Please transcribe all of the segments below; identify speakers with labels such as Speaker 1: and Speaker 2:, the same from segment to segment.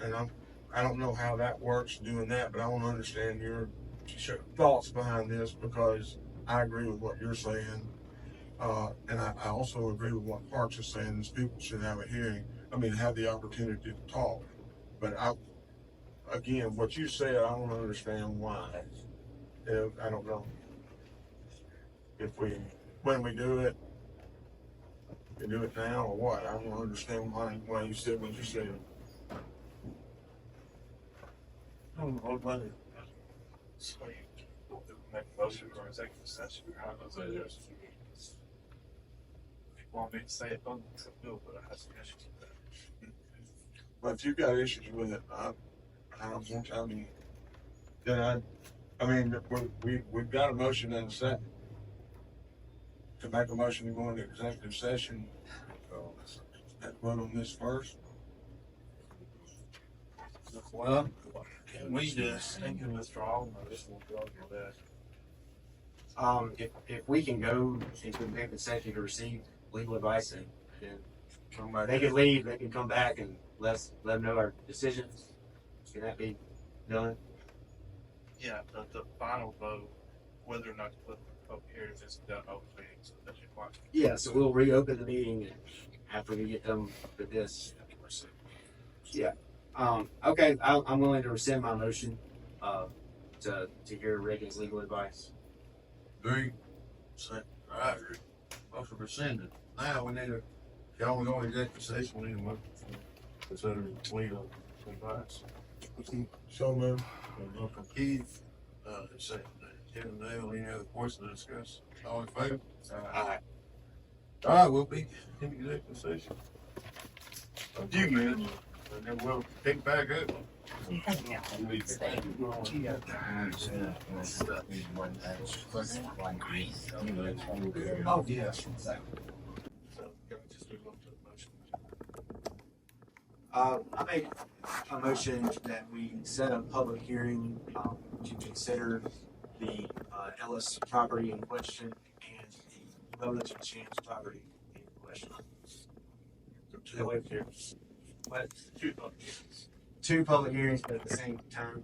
Speaker 1: and I'm, I don't know how that works doing that, but I want to understand your
Speaker 2: Sure.
Speaker 1: thoughts behind this because I agree with what you're saying. Uh, and I, I also agree with what Parks is saying, is people should have a hearing, I mean, have the opportunity to talk. But I, again, what you said, I don't understand why. If, I don't know. If we, when we do it, we do it now or what? I don't understand why, why you said what you said. I don't know, but
Speaker 2: So you make a motion for executive session, or how does that is? If you want me to say it, don't do it, but I have some issues with that.
Speaker 1: But if you've got issues with it, I, I don't think, I mean, then I, I mean, we- we, we've got a motion and a second. To make a motion to go into executive session, so let's vote on this first.
Speaker 3: Well,
Speaker 2: Can
Speaker 3: we just-
Speaker 2: Think of withdrawal, or this will go over that.
Speaker 3: um, if, if we can go into executive session to receive legal advice, then, then they
Speaker 1: Somebody,
Speaker 3: can leave, they can come back and let us, let them know our decisions. Can that be done?
Speaker 2: Yeah, but the final vote, whether or not to put the public hearings is done openly, so that you want.
Speaker 3: Yeah, so we'll reopen the meeting after we get done with this. Um, okay, I, I'm willing to rescind my motion, uh, to, to hear Reagan's legal advice.
Speaker 4: Agree. Say, I agree. Motion rescinded. Now we need to, y'all we go to executive session, we need a motion for considering legal advice.
Speaker 1: so moved.
Speaker 4: Motion from Keith, uh, second, Kevin Dale, any other points to discuss? All in favor?
Speaker 3: Aye.
Speaker 4: All right, we'll be in executive session. A few minutes, and then we'll pick back up.
Speaker 5: Oh, yes.
Speaker 2: So, can we just move on to the motion?
Speaker 3: Uh, I make a motion that we set a public hearing, um, to consider the, uh, Ellis property in question and the Lebanon Chance property in question. What?
Speaker 2: Two public
Speaker 3: Two public hearings, but at the same time,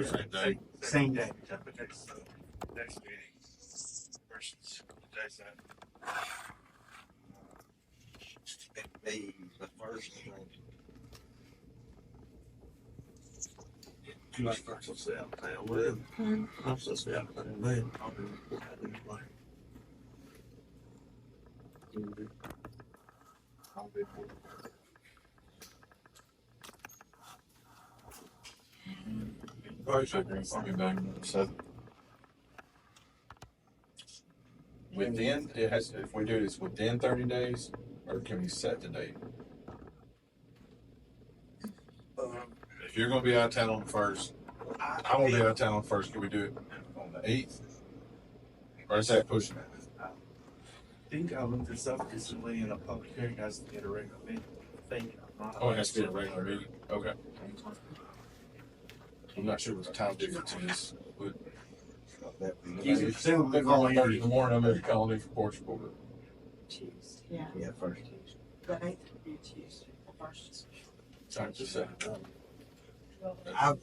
Speaker 4: Same day.
Speaker 2: hearings.
Speaker 3: same day.
Speaker 2: Okay, so, next meeting versus today's that.
Speaker 5: The, the first thing.
Speaker 4: You like first, let's say, I'm down with it. I'm supposed to be out there, man. I'll be- I'll be playing. I'll be playing.
Speaker 6: Probably should bring something back and said. Within, it has, if we do this within thirty days, or can we set the date? If you're gonna be out of town on the first, I won't be out of town on the first, can we do it on the eighth? Or is that pushing it?
Speaker 2: I think I looked this up recently in a public hearing, guys, to get a regular meeting. I think I'm not.
Speaker 6: Oh, it has to be a regular meeting, okay. I'm not sure what the time difference is, but.
Speaker 3: He's
Speaker 6: Maybe-
Speaker 3: assuming
Speaker 6: They're
Speaker 3: all
Speaker 6: calling
Speaker 3: year.
Speaker 6: Thursday morning, I'm in colony for Portugal, but
Speaker 7: Yeah,
Speaker 5: Yeah, first.
Speaker 7: the eighth would be Tuesday, the first is
Speaker 6: trying to say.
Speaker 3: I,
Speaker 6: I don't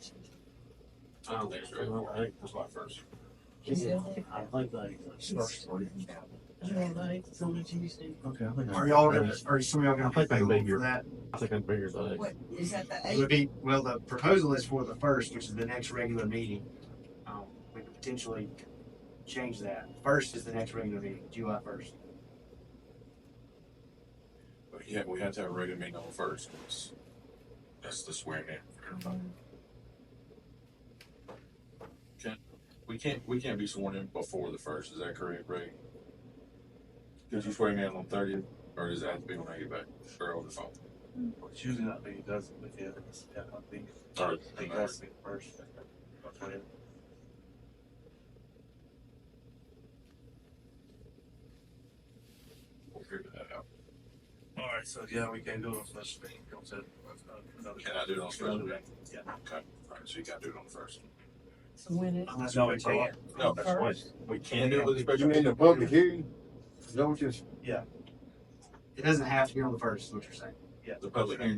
Speaker 6: think so. I think it's my first.
Speaker 3: I like that.
Speaker 7: Yeah, the eighth is on a Tuesday.
Speaker 5: Okay, I think.
Speaker 3: Are y'all gonna, are some of y'all gonna pick a date for that?
Speaker 5: I think I'm bigger than
Speaker 7: What, is that the
Speaker 3: It
Speaker 7: eighth?
Speaker 3: would be, well, the proposal is for the first, which is the next regular meeting. Um, we could potentially change that. First is the next regular meeting, July first.
Speaker 6: But yeah, we had to have a regular meeting on the first, 'cause that's the swearing in. for everybody. Can't, we can't, we can't be sworn in before the first, is that correct, Ray? Did you swear me in on thirtieth, or does that have to be when I get back, or over the phone?
Speaker 2: Well, it's usually not being done with the others. Yeah, I think.
Speaker 6: All right.
Speaker 2: I think that's the first. Okay.
Speaker 6: We'll figure that out.
Speaker 2: All right, so yeah, we can do it on special meeting. Go to another.
Speaker 6: Can I do it on special meeting?
Speaker 2: Yeah.
Speaker 6: Okay, alright, so you gotta do it on the first.
Speaker 7: So when it,
Speaker 3: Unless
Speaker 2: No,
Speaker 3: we
Speaker 2: we
Speaker 3: take it.
Speaker 2: can't.
Speaker 6: No,
Speaker 7: that's what-
Speaker 6: we can do it with a
Speaker 4: You
Speaker 6: special
Speaker 4: mean
Speaker 6: meeting.
Speaker 4: the public hearing? Is that what you're
Speaker 3: It doesn't have to be on the first, is what you're saying.
Speaker 2: Yeah.
Speaker 6: The public hearing